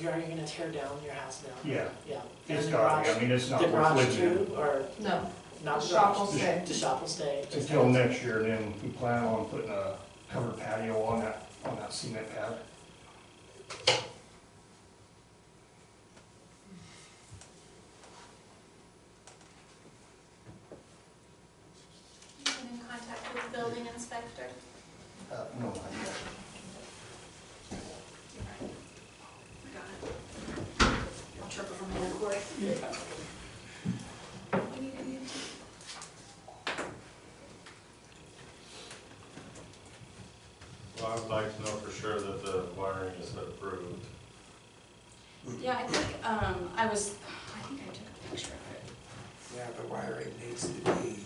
you're, you're gonna tear down your house down? Yeah. Yeah. And It's the got, garage, I mean, it's the not worth garage living too, or No, not the shop will garage? stay. The shop will stay? in until next year, and then we plan on putting a covered patio on that, on that cement pad. You've been in contact with the building inspector? Uh, no, not yet. You're right. I got it. I'll trip over my own cord. We need a new team. Well, I would like to know for sure that the wiring is approved. Yeah, I think, um, I was, I think I took a picture of it. Yeah, the wiring needs to be,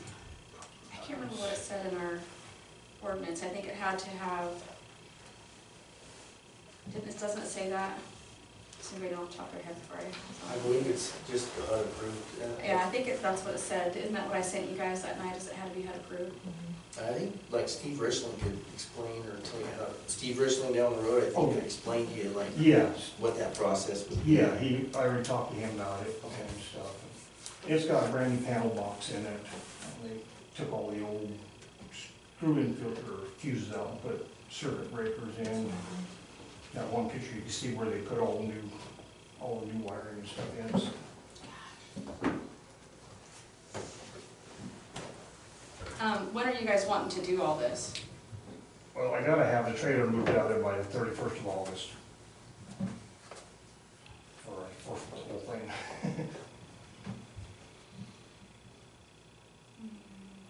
I can't remember what it said in our ordinance. I think it had to have, didn't, it doesn't it say that? Somebody off the top of their head for I it. believe it's just unapproved. uh, Yeah, I think it- that's what it said. Isn't that what I sent you guys that night, is it had to be had approved? I think, like Steve Richland could explain or tell you how, Steve Richland down the road, I think could explain to you like Yes, what that process would be. yeah, he, I already talked to him about it and stuff. It's got a brand new panel box in it. They took all the old screw-in filter fuses out, and put circuit breakers in. That one picture, you can see where they put all the new, all the new wiring and stuff in. so- Um, when are you guys wanting to do all this? Well, I gotta have the trailer moved out there by the thirty-first of August. Or, or for the whole thing.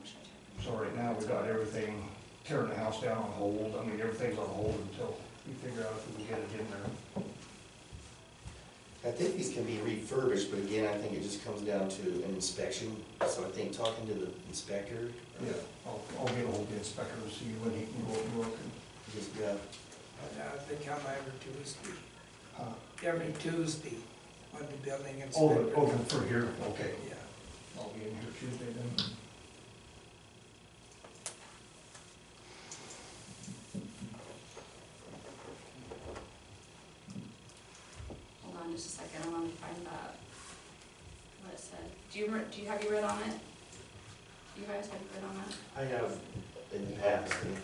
Wish I took- So right now, we got everything, tearing the house down on hold, I mean, everything's on hold until we figure out if we can get it in there. I think these can be refurbished, but again, I think it just comes down to an inspection. So I think talking to the inspector, uh, Yeah, I'll, I'll get ahold of the inspector and see when he can go up and look and, just got And I think I'm every Tuesday, uh, every Tuesday, on the building oh, inspector. the- oh, the- for here, okay. Yeah. I'll be in here Tuesday then. Hold on just a second, I want to find that, what it said. Do you, re- do you, have you read on it? You guys have you read on that? I have in the past, and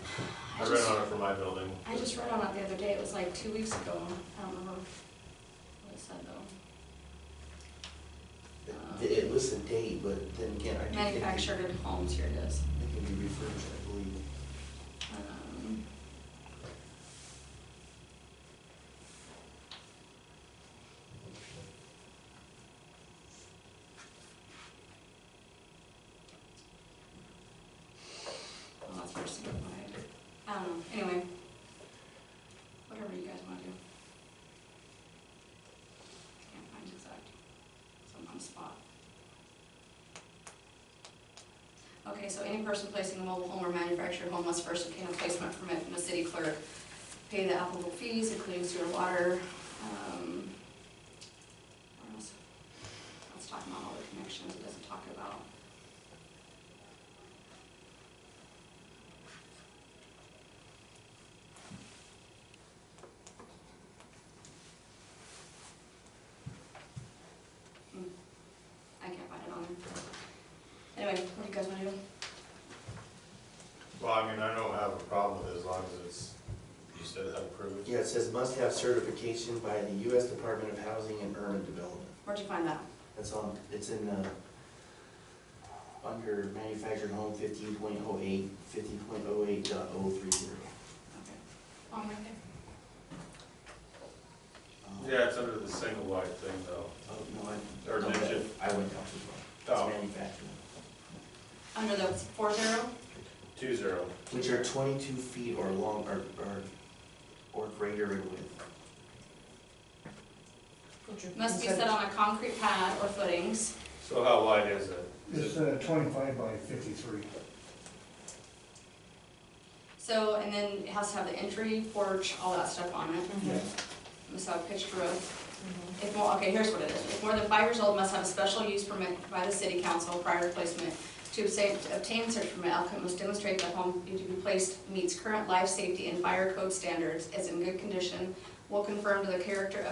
I I read just- on it for my building. I just read on it the other day, it was like two weeks ago, I don't remember what it said though. it- it lists a date, but then again, I do think. it- Manufactured at homes, here it is. It can be refurbished, I believe. Um, Well, that's first to go by. I don't know, Um, anyway. Whatever you guys wanna do. Can't find exact, so I'm on the spot. Okay, so any person placing a mobile home or manufactured home must first obtain a placement permit from the city clerk, pay the applicable fees, including sewer, water, um, where else? It's talking about all the connections, it doesn't talk about. Hmm, I can't find it on there. Anyway, what do you guys wanna do? Well, I mean, I don't have a problem with it as long as it's, you said approved. Yeah, it says must have certification by the U.S. Department of Housing and Urban Development. Where'd you find that? That's on, it's in, uh, under manufactured home fifteen point oh eight, fifteen point oh eight dot oh three zero. Okay. Oh, right there. Yeah, it's under the single wide thing though. Um, Oh, no, I. Or no, did you? I went down too far. Oh. It's manufactured. Under the four zero? Two zero. Which are twenty-two feet or long, or, or, or greater in width. Must be set on a concrete pad or footings. So how wide is it? It's, uh, twenty-five by fifty-three. So, and then it has to have the entry, porch, all that stuff on it. Yeah. Must have a picture of, if more, okay, here's what it is. If more than five years old, must have a special use permit by the city council prior to placement. To obtain, to obtain such permit, applicant must demonstrate that home to be placed meets current life safety and fire code standards, is in good condition, will confirm to the character of